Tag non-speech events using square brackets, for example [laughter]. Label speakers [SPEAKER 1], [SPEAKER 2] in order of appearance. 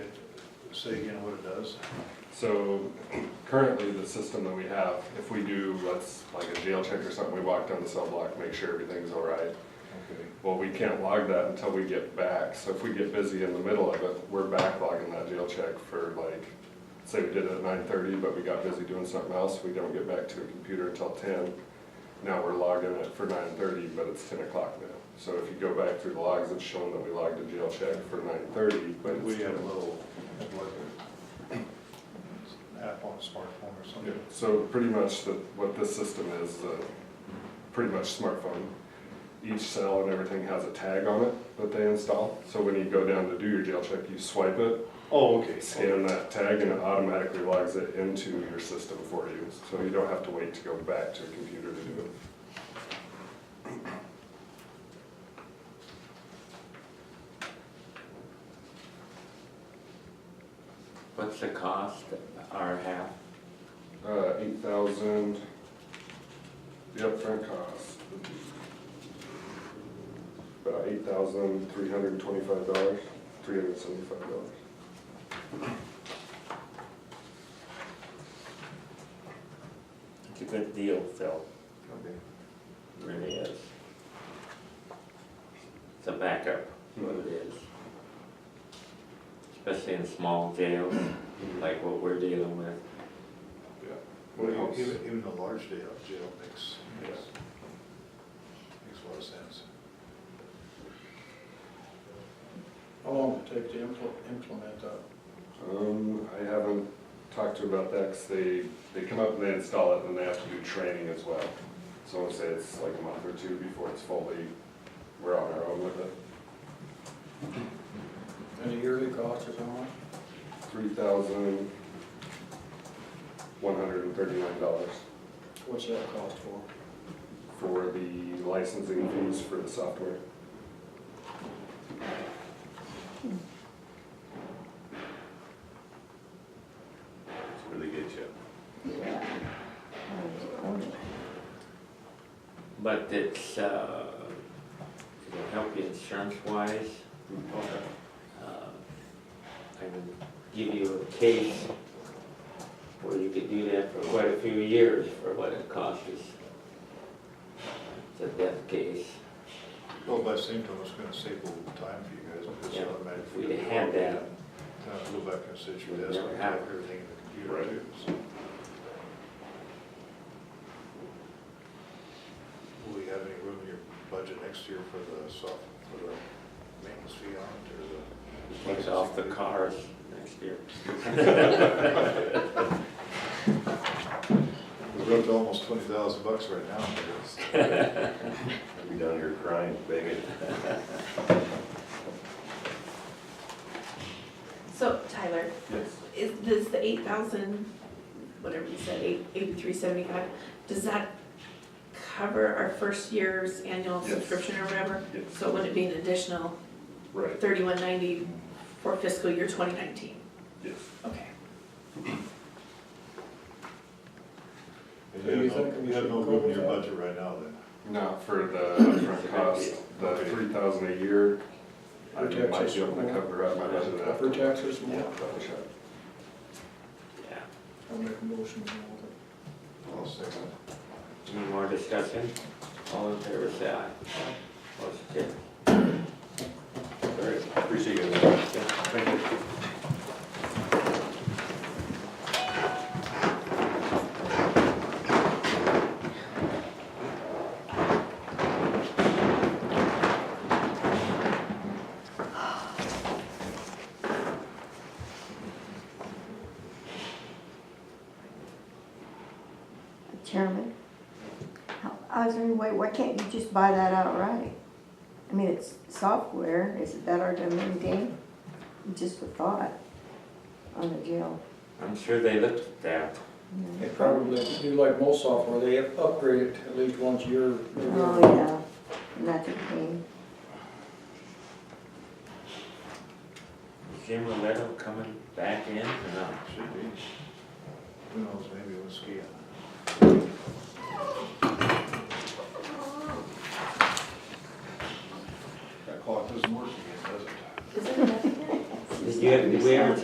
[SPEAKER 1] say again what it does?
[SPEAKER 2] So currently, the system that we have, if we do, let's, like a jail check or something, we walk down the cell block, make sure everything's all right.
[SPEAKER 1] Okay.
[SPEAKER 2] Well, we can't log that until we get back, so if we get busy in the middle of it, we're backlogging that jail check for like, say we did it at nine thirty, but we got busy doing something else, we don't get back to a computer until ten. Now we're logging it for nine thirty, but it's ten o'clock now. So if you go back through the logs, it's showing that we logged a jail check for nine thirty, but
[SPEAKER 1] But
[SPEAKER 2] it's
[SPEAKER 1] we have
[SPEAKER 2] 10.
[SPEAKER 1] a little, like, app on a smartphone or
[SPEAKER 2] Yeah,
[SPEAKER 1] something.
[SPEAKER 2] So pretty much the, what this system is, uh, pretty much smartphone. Each cell and everything has a tag on it that they install. So when you go down to do your jail check, you swipe it,
[SPEAKER 1] Oh,
[SPEAKER 2] [laughs]
[SPEAKER 1] okay.
[SPEAKER 2] scan that tag, and it automatically logs it into your system for you. So you don't have to wait to go back to a computer to do it.
[SPEAKER 3] What's the cost, our half?
[SPEAKER 2] Uh, eight thousand, the upfront cost. About eight thousand, three hundred and twenty-five dollars, three hundred and seventy-five dollars.
[SPEAKER 3] It's a good deal, Phil, It really is. It's a backup, what it is. Especially in small jails, like what we're dealing with.
[SPEAKER 2] Yeah.
[SPEAKER 1] Well, Even, even a large day out of jail makes,
[SPEAKER 2] Yeah.
[SPEAKER 1] makes makes a lot of sense. How long would it take to impl- implement that?
[SPEAKER 2] Um, I haven't talked to about that, cause they, they come up and they install it, and they have to do training as well. So I wanna say it's like a month or two before it's fully, we're on our own with it.
[SPEAKER 4] And the yearly cost is how much?
[SPEAKER 2] Three thousand, one hundred and thirty-nine dollars
[SPEAKER 4] What's that cost for?
[SPEAKER 2] for the licensing fees for the software.
[SPEAKER 5] It's really good, Chip.
[SPEAKER 3] But it's, uh, it'll help you insurance wise. uh, I can give you a case where you could do that for quite a few years for what it costs us. It's a death case.
[SPEAKER 1] Well, by the same time, it's gonna save a little time for you guys, because
[SPEAKER 3] Yeah,
[SPEAKER 1] it's automatic.
[SPEAKER 3] if we had that.
[SPEAKER 1] Time to uh, go back and sit at your
[SPEAKER 3] We'd
[SPEAKER 1] desk
[SPEAKER 3] never
[SPEAKER 1] and
[SPEAKER 3] have
[SPEAKER 1] type
[SPEAKER 3] it.
[SPEAKER 1] everything in the
[SPEAKER 2] Right.
[SPEAKER 1] computer too, so. Will we have any room in your budget next year for the soft, for the maintenance fee on it, or the?
[SPEAKER 3] Takes off the cars next year.
[SPEAKER 1] We're up to almost twenty thousand bucks right now, but it's,
[SPEAKER 5] I'll be down here crying, begging.
[SPEAKER 6] So Tyler,
[SPEAKER 2] Yes.
[SPEAKER 6] is this the eight thousand, whatever you said, eight, eighty-three seventy-five, does that cover our first year's annual
[SPEAKER 2] Yes.
[SPEAKER 6] subscription or whatever?
[SPEAKER 2] Yes.
[SPEAKER 6] So would it be an additional
[SPEAKER 2] Right,
[SPEAKER 6] thirty-one ninety for fiscal year twenty nineteen?
[SPEAKER 2] yes.
[SPEAKER 6] Okay.
[SPEAKER 4] So
[SPEAKER 1] you
[SPEAKER 4] you
[SPEAKER 1] have no,
[SPEAKER 4] think we
[SPEAKER 1] you have
[SPEAKER 4] should
[SPEAKER 1] no room in your
[SPEAKER 4] go with
[SPEAKER 1] budget right now then.
[SPEAKER 2] Not for [coughs] the upfront cost, the three thousand a year, I
[SPEAKER 4] Protects
[SPEAKER 2] might
[SPEAKER 4] us
[SPEAKER 2] be able
[SPEAKER 4] from
[SPEAKER 2] to cover up my budget after.
[SPEAKER 4] For taxes,
[SPEAKER 2] Yeah,
[SPEAKER 4] more.
[SPEAKER 2] double check.
[SPEAKER 3] Yeah.
[SPEAKER 4] I'll make a motion. to move it.
[SPEAKER 1] I'll second.
[SPEAKER 3] Any more discussion? All in favor, say aye. Motion carries.
[SPEAKER 5] All right, appreciate you guys.
[SPEAKER 2] Thank you.
[SPEAKER 7] Chairman, I was wondering, why, why can't you just buy that outright? I mean, it's software, is it that hard to maintain? Just a thought on the jail.
[SPEAKER 3] I'm sure they looked at that.
[SPEAKER 7] you know.
[SPEAKER 4] They probably do like most software, they upgrade it at least once a year.
[SPEAKER 7] Oh, yeah, and that's a pain.
[SPEAKER 3] Is Jim Roletto coming back in or not?
[SPEAKER 1] Should be. Who knows, maybe we'll ski on it. That clock doesn't work again, does it?
[SPEAKER 6] Is it enough?
[SPEAKER 3] Did you, did we ever